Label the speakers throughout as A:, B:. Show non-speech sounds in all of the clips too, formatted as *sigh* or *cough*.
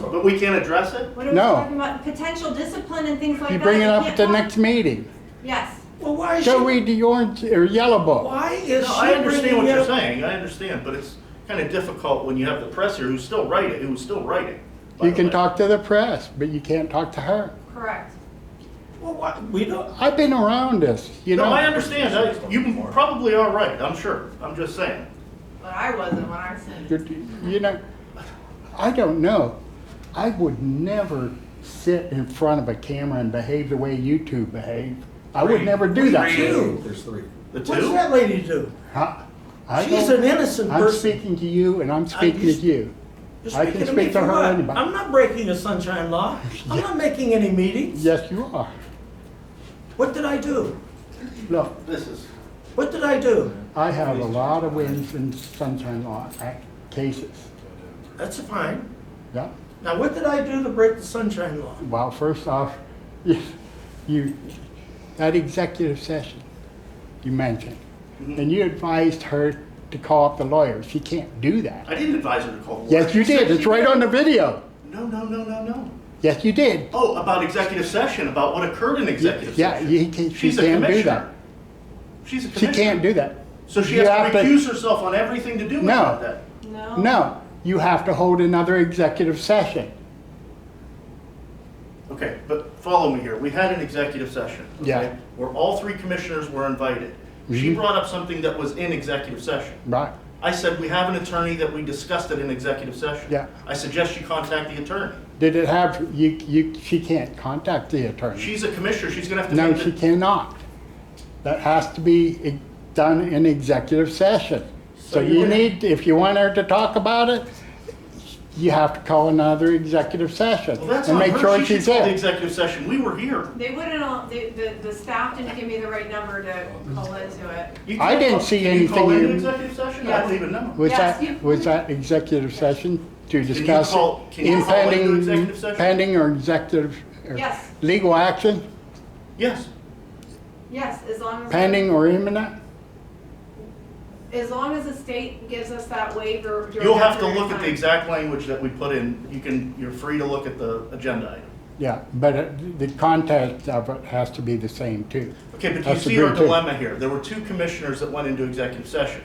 A: But we can't address it?
B: What are we
C: No.
B: talking about? Potential discipline and things like
C: You
B: that.
C: bring it
B: You
C: up at
B: can't
C: the
B: talk-
C: next meeting.
B: Yes.
D: Well, why is she,
C: Go read the orange or yellow book.
D: why is
A: No,
D: she
A: I understand what
D: bringing
A: you're
D: up-
A: saying, I understand, but it's kind of difficult when you have the press here who's still writing, who's still writing. by
C: You
A: the
C: can
A: way.
C: talk to the press, but you can't talk to her.
B: Correct.
D: Well, why, we don't,
C: I've been around this, you
A: No, I
C: know.
A: understand, I- you probably are right, I'm sure, I'm just saying.
B: But I wasn't when I seen
C: You're- You know, I don't know. I would never sit in front of a camera and behave the way you two behave. I would never do that.
D: two.
E: There's three.
A: The
D: What's
A: two?
D: that lady do?
C: Huh? I
D: She's
C: don't-
D: an innocent
C: I'm
D: person.
C: speaking to you and I'm speaking to
D: just-
C: you.
D: You're
C: I can
D: speaking
C: speak
D: me
C: to
D: for
C: her or
D: what?
C: anybody.
D: I'm not breaking the
C: *laughs*
D: sunshine law. I'm not making any meetings.
C: Yes, you are.
D: What did I do?
C: Look,
A: This is,
D: What did I do?
C: I have a lot of wins in sunshine law act cases.
D: That's fine.
C: Yeah.
D: Now, what did I do to break the sunshine law?
C: Well, first off, *laughs* you, you that executive session you mentioned,
A: Mm-hmm.
C: and you advised her to call up the lawyer. She can't do that.
A: I didn't advise her to call. the
C: Yes, you
A: lawyer.
C: did. It's right on the video.
A: No, no, no, no, no.
C: Yes, you did.
A: Oh, about executive session, about what occurred in executive
C: Yeah,
A: session.
C: you can't- she
A: She's a
C: can't do
A: commissioner.
C: that.
A: She's a
C: She
A: commissioner.
C: can't do that.
A: So she
C: You
A: has to
C: have to-
A: recuse herself on everything to do with
C: No.
A: that.
B: No.
C: No, you have to hold another executive session.
A: Okay, but follow me here. We had an executive session. okay,
C: Yeah.
A: Where all three commissioners were invited. She
C: Mhm.
A: brought up something that was in executive session.
C: Right.
A: I said, we have an attorney that we discussed it in executive session.
C: Yeah.
A: I suggest you contact the attorney.
C: Did it have you? You? She can't contact the attorney.
A: She's a commissioner, she's gonna have to.
C: No,
A: take
C: she
A: the-
C: cannot. That has to be e- done in executive session. So you need, if you want her to talk about it, you have to call another executive session.
A: Well, that's
C: and
A: on
C: make sure
A: her. She should
C: she's
A: call the
C: there.
A: executive session. We were here.
B: They wouldn't, all- the, the, the staff didn't give me the right number to call into it.
A: You
C: I
A: can't
C: didn't
A: call-
C: see
A: can you call
C: anything
A: in
C: in-
A: an executive session? I
B: Yes.
A: don't even know.
C: Was
B: Yes,
C: that,
B: you-
C: was that executive session to
A: you
C: discuss
A: call- can you call into
C: impending,
A: executive session?
C: pending or executive? or
B: Yes.
C: Legal action,
A: Yes,
B: Yes, as long as.
C: pending or imminent?
B: As long as the state gives us that waiver. during
A: you'll
B: that
A: have to
B: period of
A: look at the
B: time.
A: exact language that we put in. You can, you're free to look at the agenda item.
C: Yeah, but it- the context of it has to be the same too.
A: Okay, but do you
C: That's
A: see our
C: agreed, too.
A: dilemma here? There were two commissioners that went into executive session.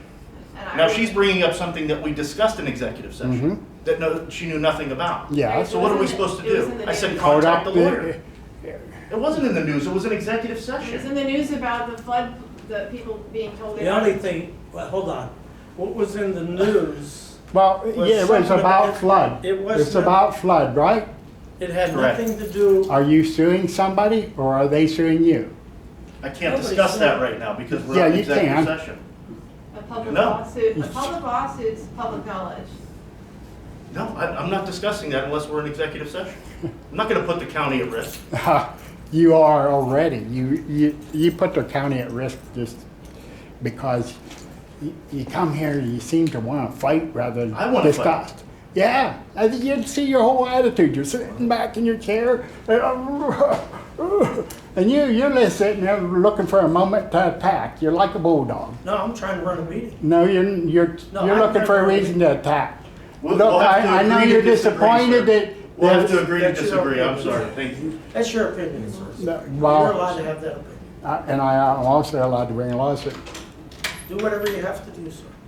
B: And I
A: Now
B: would-
A: she's bringing up something that we discussed in executive session that no, she knew nothing about.
C: Mm-hmm. Yeah.
A: So what are we supposed to
B: It was in
A: do?
B: the
A: I said
B: news.
C: Hold
A: contact the
C: up
A: lawyer. It wasn't in the news, it was an executive
B: It was
A: session.
B: in the news about the flood, the people being told. they
D: The only thing, well, hold on. What was in the news,
C: Well,
D: Was
C: yeah, it was
D: something
C: about
D: about-
C: flood.
D: it was
C: It's
D: not-
C: about flood, right?
D: it had
A: Correct.
D: nothing to do,
C: Are you suing somebody or are they suing you? *laughs*
A: I can't
D: Nobody
A: discuss
D: said-
A: that right now because
C: Yeah,
A: we're in
C: you
A: executive
C: can.
A: session.
B: A public
A: No.
B: lawsuit, a public lawsuit's public knowledge.
A: No, I, I'm not discussing that unless we're in executive session. I'm not gonna put the county at risk.
C: You are already. You, you, you put the county at risk just because you, you come here and you seem to want to fight rather than
A: I wanna fight.
C: discuss. Yeah, I think you'd see your whole attitude. You're sitting back in your chair, *laughs* and you you're just sitting there looking for a moment to attack. You're like a bulldog.
D: no, I'm trying to run a meeting.
C: No, you're, you're,
D: No,
C: you're
D: I-
C: looking for a reason to attack.
A: We'll-
C: Look,
A: we'll have to
C: I, I know
A: agree to
C: you're
A: disagree, sir.
C: disappointed that.
A: We'll have to
C: that-
A: agree to
D: That's your
A: disagree, I'm
D: opinion.
A: sorry, thank you.
D: That's your opinion, sir.
C: that-
D: You're
C: Well,
D: allowed to have that opinion.
C: I- and I, I'm also allowed to bring a lawsuit.
D: Do whatever you have to do, sir.